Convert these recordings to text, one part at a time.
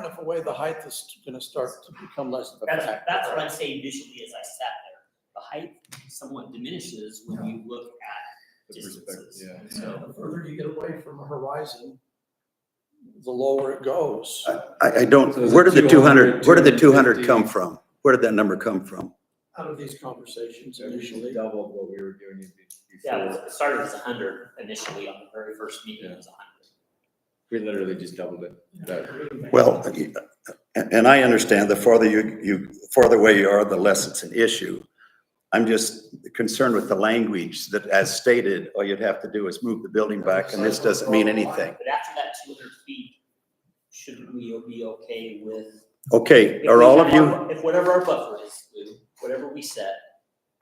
enough away, the height is gonna start to become less of a That's, factor. that's what I'm saying visually as I sat there. The height somewhat diminishes when you look at The perspective, distances. yeah. And So So, the further you get away from a horizon, the lower it goes. I, I don't, So is where it did the two hundred, 200, where did the two hundred 250? come from? Where did that number come from? Out of these conversations So we should initially, double what we were doing be- yeah, it was- before. it started as hundred initially on the very first meeting, it was hundred. We literally just doubled it. That- Well, and, and I understand the farther you, you, farther away you are, the less it's an issue. I'm just concerned with the language that as stated, all you'd have to do is move the building back and this doesn't mean anything. But after that two hundred feet, shouldn't we be okay with? Okay, are all of you, If whatever our buffer is, Lou, whatever we set,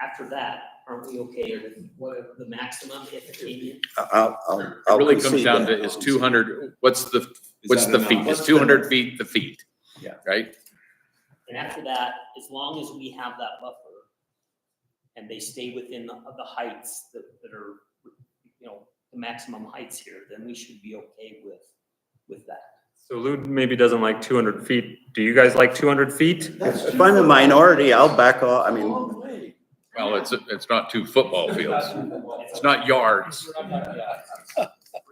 after that, aren't we okay with whatever the maximum if it came in? I'll, I'll. It I'll really comes concede down that. to is two hundred, what's the, Is what's that the enough? feet? Is What's two hundred feet the feet? Yeah. Right? And after that, as long as we have that buffer and they stay within the, the heights that, that are, you know, the maximum heights here, then we should be okay with, with that. So Lou maybe doesn't like two hundred feet. Do you guys like two hundred feet? If I'm a minority, I'll back off, I mean, Long way. Well, it's, it's not two football fields. It's not yards.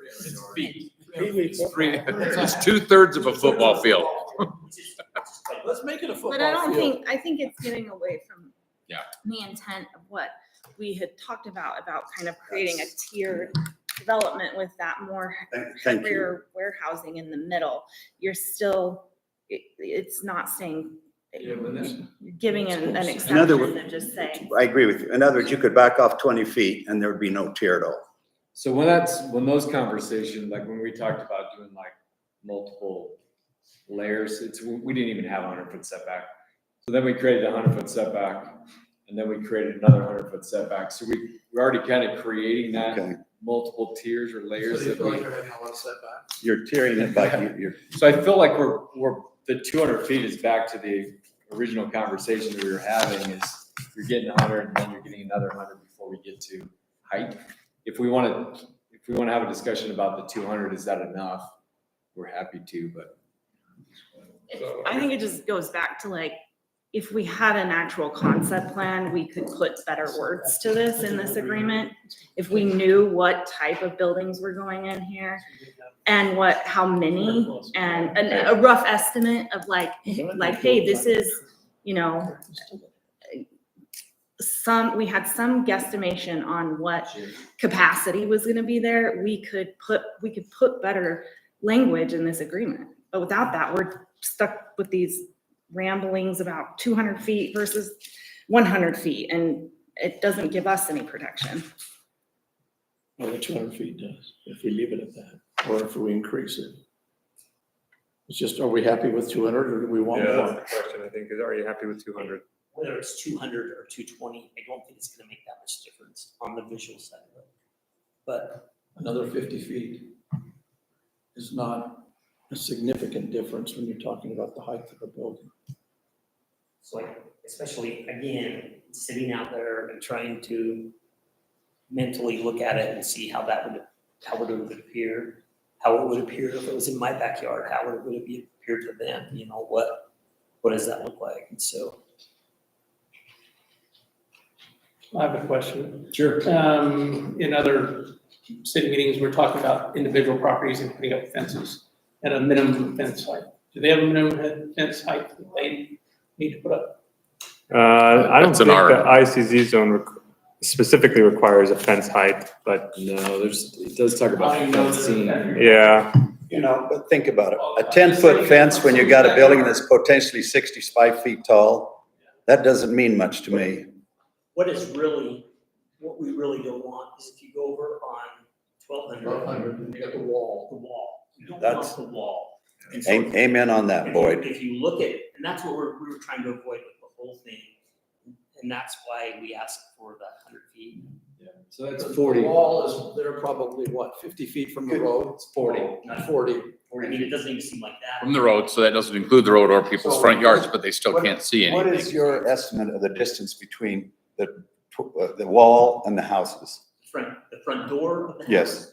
It's feet. It's three, it's two thirds of a football field. Which is- which is quite- Let's make it a football But I don't field. think, I think it's getting away from. Yeah. The intent of what we had talked about, about kind of creating a tiered development with that more thank- thank you. rear warehousing in the middle. You're still, it, it's not saying, giving an, an In other exception wo- and just saying. I agree with you. In other words, you could back off twenty feet and there would be no tier at all. So when that's, when those conversations, like when we talked about doing like multiple layers, it's, we didn't even have a hundred foot setback. So then we created a hundred foot setback and then we created another hundred foot setback. So we, we're already kind of creating that Okay, multiple tiers or So you layers that feel like we. you're having a lot of setbacks. you're tearing it back, you- you're, So I feel like we're, we're, the two hundred feet is back to the original conversation that we were having is you're getting hundred and then you're getting another hundred before we get to height. If we wanna, if we wanna have a discussion about the two hundred, is that enough? We're happy to, but. It's- I think it just goes back to like, if we had an actual concept plan, we could put better words to this in this agreement. If we knew what type of buildings were going in here and what, how many and, and a rough estimate of like, like, hey, this is, you know, some, we had some guesstimation on what capacity was gonna be there. We could put, we could put better language in this agreement. But without that, we're stuck with these ramblings about two hundred feet versus one hundred feet, and it doesn't give us any protection. Well, the two hundred feet does, if we leave it at that, or if we increase it. It's just, are we happy with two hundred or do we want more? question, I think, is are you happy with two hundred? Whether it's two hundred or two twenty, I don't think it's gonna make that much difference on the visual side of it. But Another fifty feet is not a significant difference when you're talking about the height of a building. So like, especially again, sitting out there and trying to mentally look at it and see how that would, how would it would appear? How it would appear if it was in my backyard, how would it, would it be- appear to them, you know, what, what does that look like? And so, I have a question. Sure. Um, in other city meetings, we're talking about individual properties and putting up fences at a minimum fence height. Do they have a minimum fence height that they need to put up? Uh, I don't That's an think the R. ICZ zone requ- specifically requires a fence height, but No, there's, it does talk about How do you know that- fencing. yeah, you know, but think about it. A ten-foot fence when you got a building that's potentially sixty-five feet tall, that doesn't mean much to me. what is really, what we really don't want is if you go over on twelve hundred, and you got the wall. the wall, you don't That's- want the wall. And so A- Amen on that, If you- Boyd. If you look at, and that's what we're, we were trying to avoid with the whole thing. And that's why we asked for the hundred feet. Yeah, So that's The forty, Wall is, they're probably what, fifty feet from the road? it's forty. Not forty. I mean, it doesn't even seem like that. From the road, so that doesn't include the road or people's front yards, but they still can't see What is anything. your estimate of the distance between the, tw- uh, the wall and the houses? The Front, the front door of the house. Yes.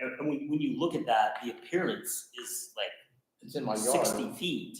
And, and when, when you look at that, the appearance is like It's in my yard. sixty feet.